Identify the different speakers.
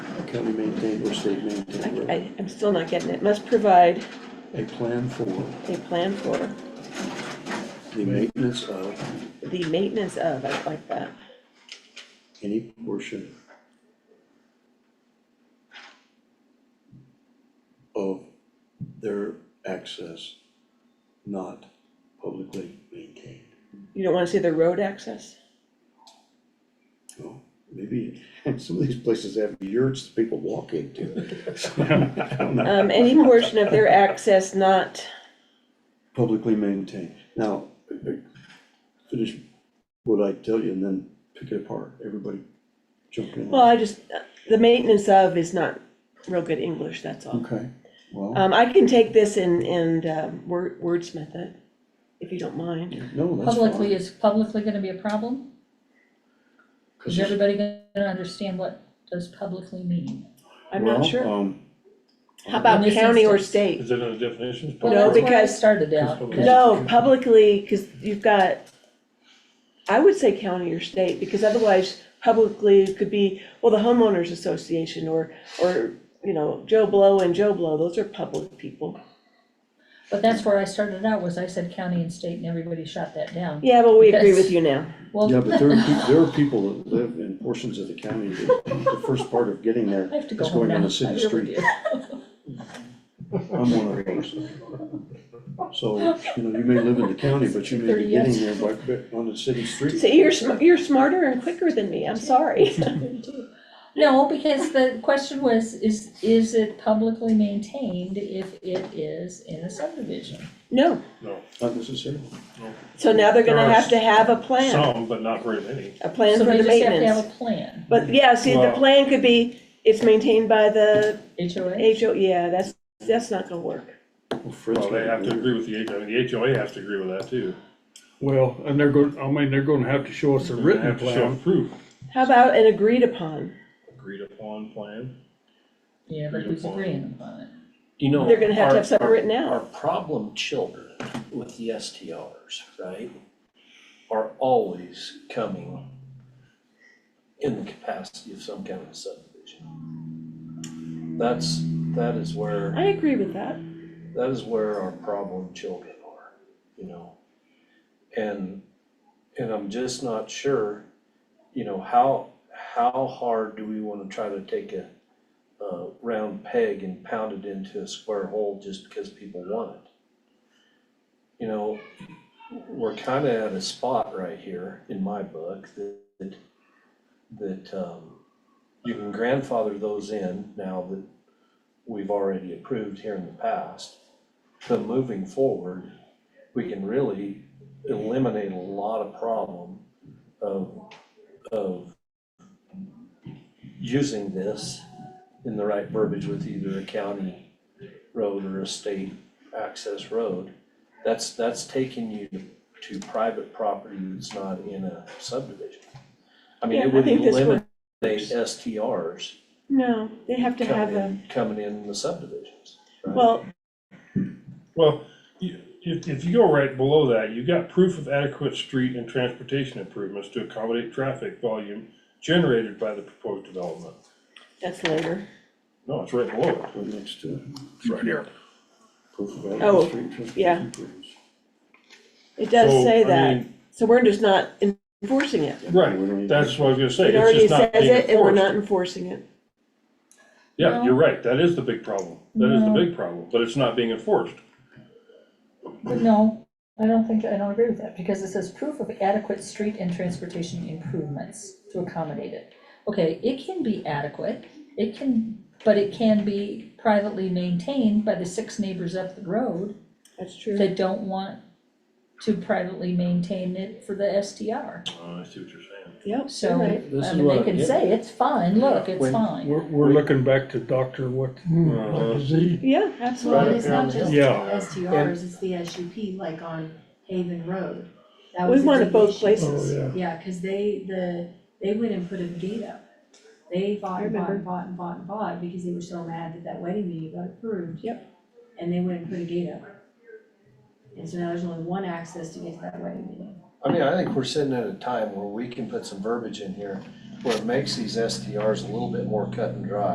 Speaker 1: county maintained or state maintained
Speaker 2: I,
Speaker 1: road.
Speaker 2: I- I'm still not getting it, must provide
Speaker 1: A plan for
Speaker 2: a plan for
Speaker 1: the maintenance of
Speaker 2: the maintenance of, I like that.
Speaker 1: any portion of their access not publicly maintained.
Speaker 2: You don't wanna say the road access?
Speaker 1: Well, maybe, some of these places have yurts that people walk into. So, I don't know.
Speaker 2: Um, any portion of their access not,
Speaker 1: Publicly maintained. Now, I- I finish what I tell you and then pick it apart. Everybody jump in.
Speaker 2: well, I just, the maintenance of is not real good English, that's all.
Speaker 1: Okay,
Speaker 3: Uh,
Speaker 1: well,
Speaker 2: Um, I can take this and, and um, word, wordsmith it, if you don't mind.
Speaker 1: no, that's fine.
Speaker 3: Publicly, is publicly gonna be a problem?
Speaker 1: 'Cause
Speaker 3: Is
Speaker 1: it's-
Speaker 3: everybody gonna understand what does publicly mean?
Speaker 2: I'm not
Speaker 1: well,
Speaker 2: sure.
Speaker 1: um,
Speaker 2: How about
Speaker 3: In this
Speaker 2: county or
Speaker 3: instance-
Speaker 2: state?
Speaker 4: Is it in the definitions?
Speaker 2: No,
Speaker 3: Well, that's where I
Speaker 2: because-
Speaker 3: Started out.
Speaker 4: Because-
Speaker 2: No, publicly, cause you've got, I would say county or state, because otherwise publicly could be, well, the homeowners association or, or, you know, Joe Blow and Joe Blow, those are public people.
Speaker 3: But that's where I started out, was I said county and state, and everybody shot that down.
Speaker 2: Yeah, but we agree
Speaker 3: Yes.
Speaker 2: with you now.
Speaker 3: Well,
Speaker 1: Yeah, but there are, peo- there are people that live in portions of the county that the first part of getting there
Speaker 3: I have to go
Speaker 1: is
Speaker 3: home
Speaker 1: going
Speaker 3: now.
Speaker 1: on a
Speaker 3: I
Speaker 1: city
Speaker 3: really
Speaker 1: street.
Speaker 3: do.
Speaker 1: I'm one of those. So, you know, you may live in the county, but you may be
Speaker 3: 30 years.
Speaker 1: getting there by, by- on the city street.
Speaker 2: See, you're, sm- you're smarter and quicker than me, I'm sorry.
Speaker 3: No, because the question was, is, is it publicly maintained if it is in a subdivision?
Speaker 2: No,
Speaker 4: No,
Speaker 1: Not necessarily.
Speaker 2: so now they're gonna
Speaker 4: There are
Speaker 2: have to have a plan,
Speaker 4: some, but not very many.
Speaker 2: a plan for the
Speaker 3: So they just have to have
Speaker 2: maintenance.
Speaker 3: a plan,
Speaker 2: But yeah, see, the
Speaker 4: Well-
Speaker 2: plan could be, it's maintained by the
Speaker 3: HOA,
Speaker 2: HO, yeah, that's, that's not gonna work.
Speaker 1: Well, Fred's
Speaker 4: Well, they
Speaker 1: got
Speaker 4: have
Speaker 1: it.
Speaker 4: to agree with the HOA, the HOA has to agree with that too.
Speaker 5: Well, and they're going, I mean, they're gonna have to show us a
Speaker 4: They're gonna
Speaker 5: written
Speaker 4: have to show
Speaker 5: plan.
Speaker 4: Proof,
Speaker 2: How about an agreed upon?
Speaker 4: agreed upon plan.
Speaker 3: yeah, but who's agreeing upon it?
Speaker 6: You know.
Speaker 2: They're gonna have to
Speaker 6: our-
Speaker 2: have something
Speaker 6: our-
Speaker 2: written out.
Speaker 6: Our problem children with the STRs, right, are always coming in the capacity of some kind of subdivision. That's, that is where,
Speaker 2: I agree with that.
Speaker 6: that is where our problem children are, you know? And, and I'm just not sure, you know, how, how hard do we wanna try to take a, a round peg and pound it into a square hole just because people want it? You know, we're kinda at a spot right here, in my book, that, that, um, you can grandfather those in now that we've already approved here in the past. But moving forward, we can really eliminate a lot of problem of, of using this in the right verbiage with either a county road or a state access road. That's, that's taking you to private property that's not in a subdivision. I mean,
Speaker 2: Yeah, I
Speaker 6: it would
Speaker 2: think this
Speaker 6: eliminate STRs
Speaker 2: No, they have to have
Speaker 6: coming
Speaker 2: a,
Speaker 6: in, coming in the subdivisions. right?
Speaker 2: well,
Speaker 4: Well, you, if, if you go right below that, you've got proof of adequate street and transportation improvements to accommodate traffic volume generated by the proposed development.
Speaker 2: that's later.
Speaker 4: No, it's right below it.
Speaker 1: Right next to it.
Speaker 5: Right here.
Speaker 1: Proof of adequate
Speaker 2: Oh,
Speaker 1: street transportation
Speaker 2: yeah.
Speaker 1: improvements.
Speaker 2: It does
Speaker 4: So,
Speaker 2: say
Speaker 4: I
Speaker 2: that.
Speaker 4: mean-
Speaker 2: So we're just not enforcing it.
Speaker 1: We don't need
Speaker 4: Right, that's what I was gonna say,
Speaker 2: It
Speaker 4: it's
Speaker 2: already
Speaker 4: just
Speaker 2: says
Speaker 4: not being
Speaker 2: it and we're not
Speaker 4: enforced.
Speaker 2: enforcing it.
Speaker 4: Yeah, you're right, that is the big problem, that is the big problem, but it's not being enforced.
Speaker 3: But No, I don't think, I don't agree with that, because it says proof of adequate street and transportation improvements to accommodate it. Okay, it can be adequate, it can, but it can be privately maintained by the six neighbors up the road
Speaker 2: That's true.
Speaker 3: that don't want to privately maintain it for the STR.
Speaker 4: Oh, I see what you're saying.
Speaker 2: Yep,
Speaker 3: So,
Speaker 2: so right.
Speaker 6: This
Speaker 3: I
Speaker 6: is
Speaker 3: mean, they
Speaker 6: what-
Speaker 3: can
Speaker 6: yeah.
Speaker 3: say, it's fine, look, it's
Speaker 6: When-
Speaker 3: fine.
Speaker 5: We're, we're looking back to Dr. what,
Speaker 4: Uh-huh.
Speaker 5: Z,
Speaker 2: Yeah,
Speaker 7: Well,
Speaker 2: absolutely.
Speaker 7: it's not just the
Speaker 5: Yeah.
Speaker 7: STRs, it's the SUP, like on Haven Road. That
Speaker 2: We
Speaker 7: was a
Speaker 2: want it
Speaker 7: big
Speaker 2: both
Speaker 7: issue.
Speaker 4: Oh,
Speaker 2: places.
Speaker 5: yeah.
Speaker 7: Yeah, because they, the, they went and put a gate up. They fought
Speaker 2: I
Speaker 7: and fought and
Speaker 2: remember.
Speaker 7: fought and fought and fought because they were so mad that that wedding venue got approved.
Speaker 2: Yep.
Speaker 7: And they went and put a gate up. And so now there's only one access to get to that wedding venue.
Speaker 6: I mean, I think we're sitting at a time where we can put some verbiage in here where it makes these STRs a little bit more cut and dry.